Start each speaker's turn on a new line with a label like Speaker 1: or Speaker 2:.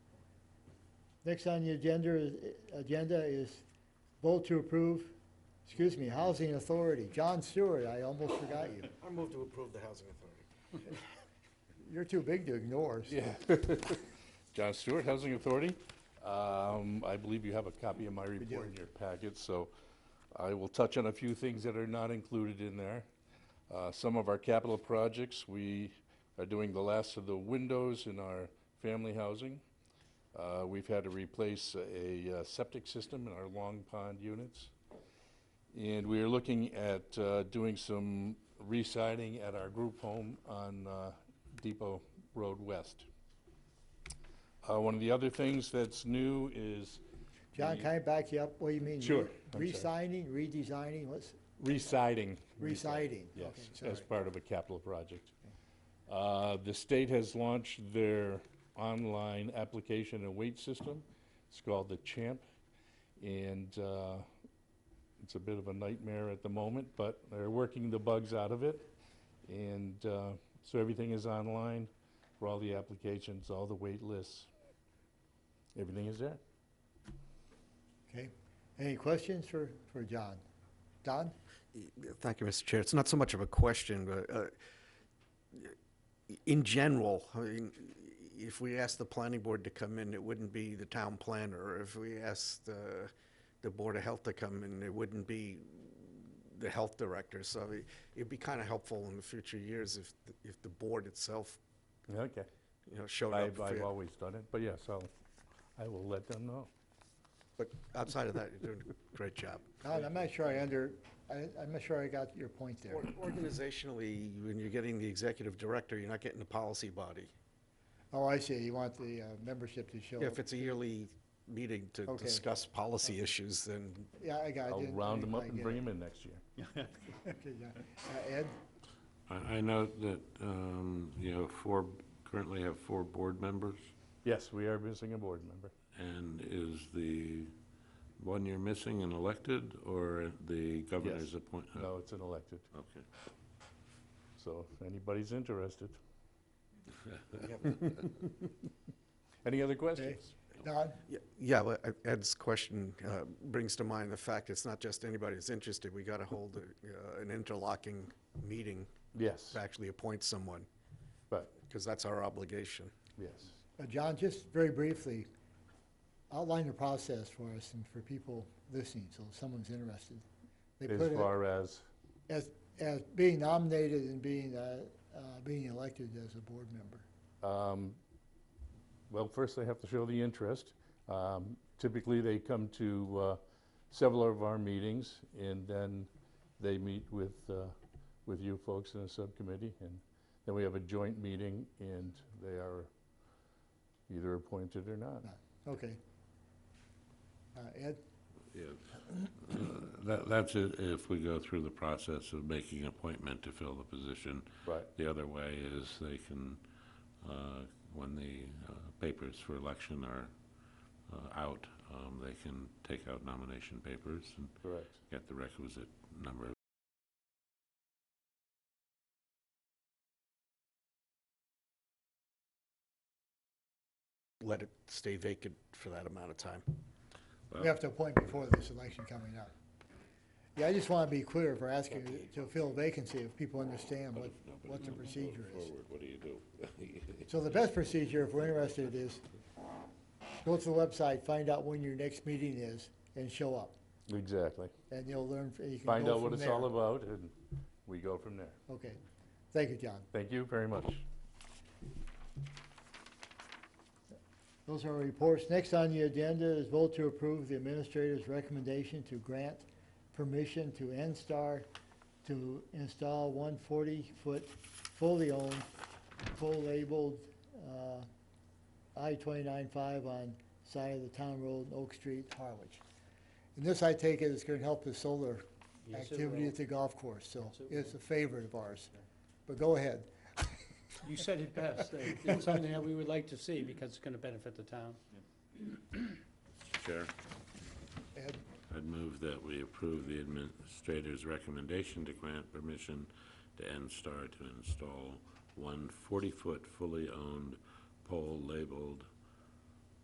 Speaker 1: Next on the agenda, is- agenda is vote to approve, excuse me, Housing Authority. John Stewart, I almost forgot you.
Speaker 2: I move to approve the housing authority.
Speaker 1: You're too big to ignore. so-
Speaker 3: Yeah. John Stewart, Housing Authority. Um, I believe you have a copy of my report in your packet, so I will touch on a few things that are not included in there. Uh, Some of our capital projects, we are doing the last of the windows in our family housing. Uh, We've had to replace a uh, septic system in our Long Pond units. And we are looking at uh, doing some re-siding at our group home on uh, Depot Road West. Uh, One of the other things that's new is
Speaker 1: John, can I back you up? What do you mean? re-
Speaker 3: Sure, I'm sorry.
Speaker 1: Re-signing, redesigning, what's,
Speaker 3: re-siding.
Speaker 1: re-siding?
Speaker 3: Yes,
Speaker 1: Okay, sorry.
Speaker 3: as part of a capital project. Uh, The state has launched their online application and wait system. It's called the CHAMP, and uh, it's a bit of a nightmare at the moment, but they're working the bugs out of it. And uh, so everything is online for all the applications, all the wait lists. Everything is there.
Speaker 1: Okay. Any questions for, for John? Don?
Speaker 4: Thank you, Mr. Chair. It's not so much of a question, but uh, in general, I mean, if we asked the planning board to come in, it wouldn't be the town planner. If we asked uh, the Board of Health to come in, it wouldn't be the health director. So it- it'd be kind of helpful in the future years if, the- if the board itself,
Speaker 3: Okay.
Speaker 4: you know, showed up.
Speaker 3: I've
Speaker 4: for
Speaker 3: I've
Speaker 4: you.
Speaker 3: always done it, but yes, I'll- I will let them know.
Speaker 4: But outside of that, you're doing a great job.
Speaker 1: Don, I'm not sure I under, I, I'm not sure I got your point there.
Speaker 4: Or- Organizationally, when you're getting the executive director, you're not getting the policy body.
Speaker 1: Oh, I see. You want the uh, membership to show
Speaker 4: Yeah,
Speaker 1: up.
Speaker 4: If it's a yearly meeting to
Speaker 1: Okay.
Speaker 4: discuss policy issues, then
Speaker 1: Yeah, I got it.
Speaker 3: I'll
Speaker 1: Didn't-
Speaker 3: round them
Speaker 1: I
Speaker 3: up and
Speaker 1: get
Speaker 3: bring
Speaker 1: it.
Speaker 3: them in next year.
Speaker 1: Okay, yeah. Uh, Ed?
Speaker 5: I, I note that, um, you have four, currently have four board members,
Speaker 3: Yes, we are missing a board member.
Speaker 5: and is the one you're missing an elected, or the governor's appointment?
Speaker 3: No, it's an elected,
Speaker 5: Okay.
Speaker 3: so if anybody's interested. Any other questions?
Speaker 1: Don?
Speaker 4: y- yeah, but Ed- Ed's question uh, brings to mind the fact it's not just anybody that's interested. We got to hold a, uh, an interlocking meeting
Speaker 3: Yes,
Speaker 4: to actually appoint someone
Speaker 3: but,
Speaker 4: because that's our obligation.
Speaker 3: yes.
Speaker 1: Uh, John, just very briefly, outline the process for us and for people listening, so if someone's interested. They
Speaker 3: As
Speaker 1: put it
Speaker 3: far as,
Speaker 1: As, as being nominated and being, uh, uh, being elected as a board member.
Speaker 3: um, well, first they have to show the interest. Um, Typically, they come to uh, several of our meetings, and then they meet with, uh, with you folks in the subcommittee, and then we have a joint meeting, and they are either appointed or not.
Speaker 1: Okay. Uh, Ed?
Speaker 5: Yeah. Uh, That, that's it, if we go through the process of making an appointment to fill the position.
Speaker 3: Right.
Speaker 5: The other way is they can, uh, when the uh, papers for election are uh, out, um, they can take out nomination papers and
Speaker 3: Correct.
Speaker 5: get the requisite number of
Speaker 4: Let it stay vacant for that amount of time.
Speaker 1: We have to appoint before this election coming up. Yeah, I just want to be clear for asking to fill vacancy if people understand what, what the procedure is.
Speaker 5: What do you do?
Speaker 1: So the best procedure, if we're interested, is go to the website, find out when your next meeting is, and show up.
Speaker 3: Exactly.
Speaker 1: And you'll learn, you can go
Speaker 3: Find out what
Speaker 1: from
Speaker 3: it's
Speaker 1: there.
Speaker 3: all about, and we go from there.
Speaker 1: Okay. Thank you, John.
Speaker 3: Thank you very much.
Speaker 1: Those are reports. Next on the agenda is vote to approve the administrator's recommendation to grant permission to NSTAR to install one 40-foot fully owned, full labeled uh, I-295 on side of the town road, Oak Street, Harwich. And this, I take it, is going to help the solar
Speaker 2: Yes, it
Speaker 1: activity
Speaker 2: will.
Speaker 1: at the golf course, so
Speaker 2: Yes, it
Speaker 1: it's a favorite of ours. But go ahead.
Speaker 2: You said it best. It- It's something that we would like to see because it's going to benefit the town.
Speaker 5: Chair,
Speaker 1: Ed?
Speaker 5: I'd move that we approve the administrator's recommendation to grant permission to NSTAR to install one 40-foot fully owned pole labeled